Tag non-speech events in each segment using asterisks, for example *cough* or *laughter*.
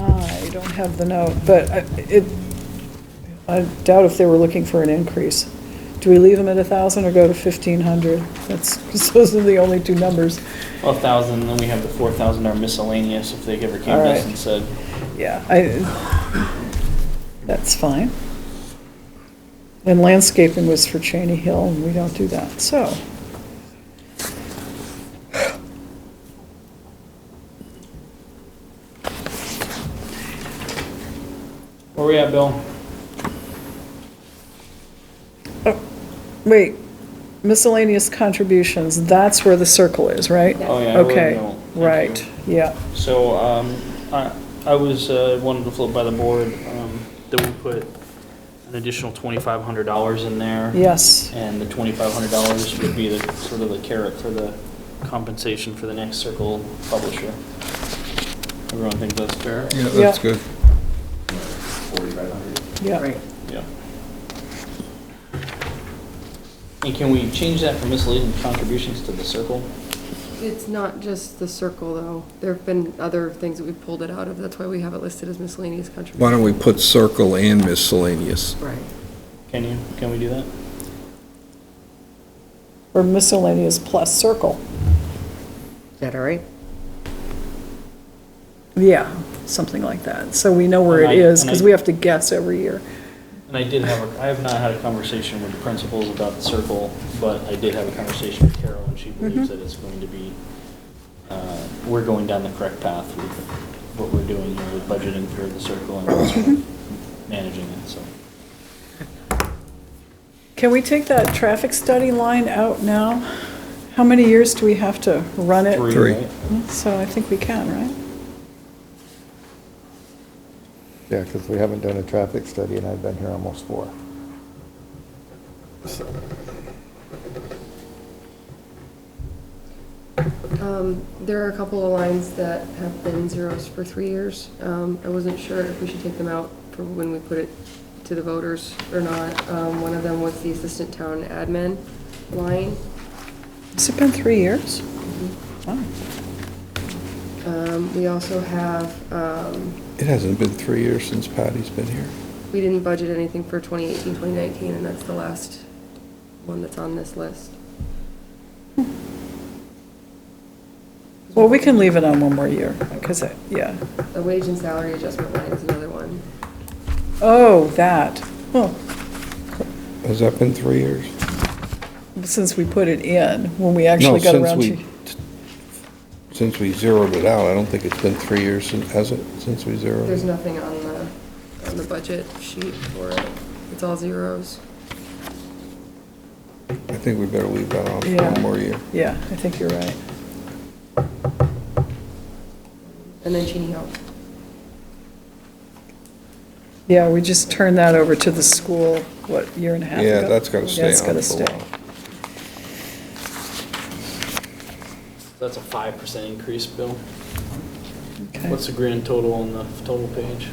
don't have the note, but I- it, I doubt if they were looking for an increase. Do we leave them at 1,000 or go to 1,500? That's, *laughs* those are the only two numbers. Well, a thousand, then we have the four thousand are miscellaneous if they ever came All to us right. and said, Yeah, I, that's fine. And landscaping was for Cheney Hill, and we don't do that, so. where we at, Bill? Oh, Wait, miscellaneous contributions, that's where the circle is, right? Oh, yeah, I wrote a note. Okay, Thank you. right, yeah. So, um, I, I was, uh, wanted to float by the board, um, that we put an additional twenty-five hundred dollars in there. Yes, And the twenty-five hundred dollars would be the, sort of the carrot for the compensation for the next circle publisher. Everyone think that's fair? Yeah, that's that's good. yeah. Yeah. And can we change that from misleading contributions to the circle? It's not just the circle, though. There have been other things that we've pulled it out of. That's why we have it listed as miscellaneous contributions. Why don't we put circle and miscellaneous? Right. Can you, can we do that? Or miscellaneous plus circle. Is that all right? Yeah, something like that. So we know where And it I- is, and because I- we have to guess every year. And I did have, a I have not had a conversation with the principals about the circle, but I did have a conversation with Carol, and she believes that it's going to be, uh, we're going down the correct path with what we're doing here with budgeting for the circle and also managing it, so. Can we take that traffic study line out now? How many years do we have to run it? Hmm, Three. right? So I think we can, right? Yeah, because we haven't done a traffic study, and I've been here almost four. Um, There are a couple of lines that have been zeros for three years. Um, I wasn't sure if we should take them out for when we put it to the voters or not. Um, One of them was the assistant town admin line. Has it been three years? Wow. Um, We also have, um, It hasn't been three years since Patty's been here. we didn't budget anything for 2018, 2019, and that's the last one that's on this list. Well, we can leave it on one more year, because, it- yeah. The wage and salary adjustment line is another one. Oh, that. Well, Has that been three years? since we put it in, when we No, actually got since around we to. Since we zeroed it out, I don't think it's been three years, sin- has it, since we zeroed There's it? nothing on the, on the budget sheet for it. It's all zeros. I think we better leave that on for Yeah. Oh, one more year. Yeah, I think you're right. And then Cheney Hill. Yeah, we just turned that over to the school, what, year and a half ago? Yeah, that's gotta stay Yeah, it's on gotta for a stay. while. That's a five percent increase, Bill. Okay. What's the grand total on the total page?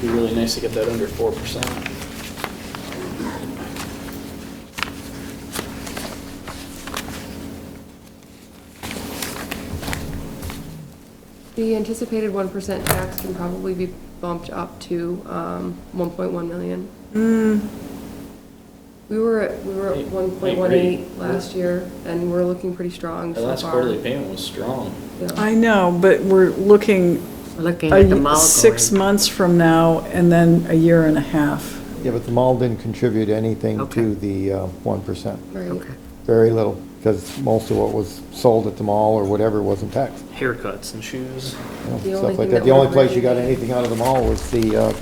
Be really nice to get that under four percent. The anticipated one percent tax can probably be bumped up to, um, one point one million. Hmm. We were at, we were at Eight- one point one eight, eight great. last year, and we're looking pretty strong The so far. last quarterly payment was strong. Yeah. I know, but we're looking Looking at the a- mall six going. months from now and then a year and a half. Yeah, but the mall didn't contribute anything Okay. to the uh, 1%. Right. Okay. Very little, because most of what was sold at the mall or whatever wasn't taxed. Haircuts and shoes. you know, The only Stuff thing like that. that The only we're place you got really- anything out of the mall was the uh,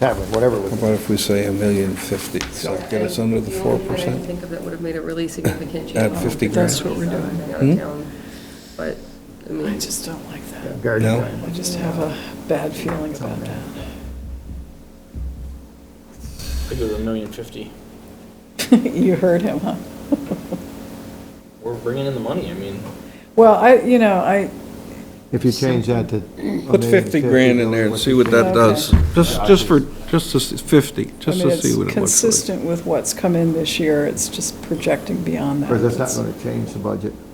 tavern, whatever it How was. about if we say a million fifty, does that get us under the The four only thing I can percent? think of that would have made a really significant change. Add 50 grand. That's what we're doing. Out of Hmm? town. But, I I mean, just don't like that. Garden No. Grind. I just have a bad feeling about that. *laughs* I go to a million fifty. You heard him, huh? *laughs* We're bringing in the money, I mean. Well, I, you know, I, If you change that to. Put fifty grand in there and see what that does. Just, just for, just to, s- fifty, I just mean, to see it's what it looks like. consistent with what's come in this year. It's just projecting beyond that. Because that's not It's- going to change the budget.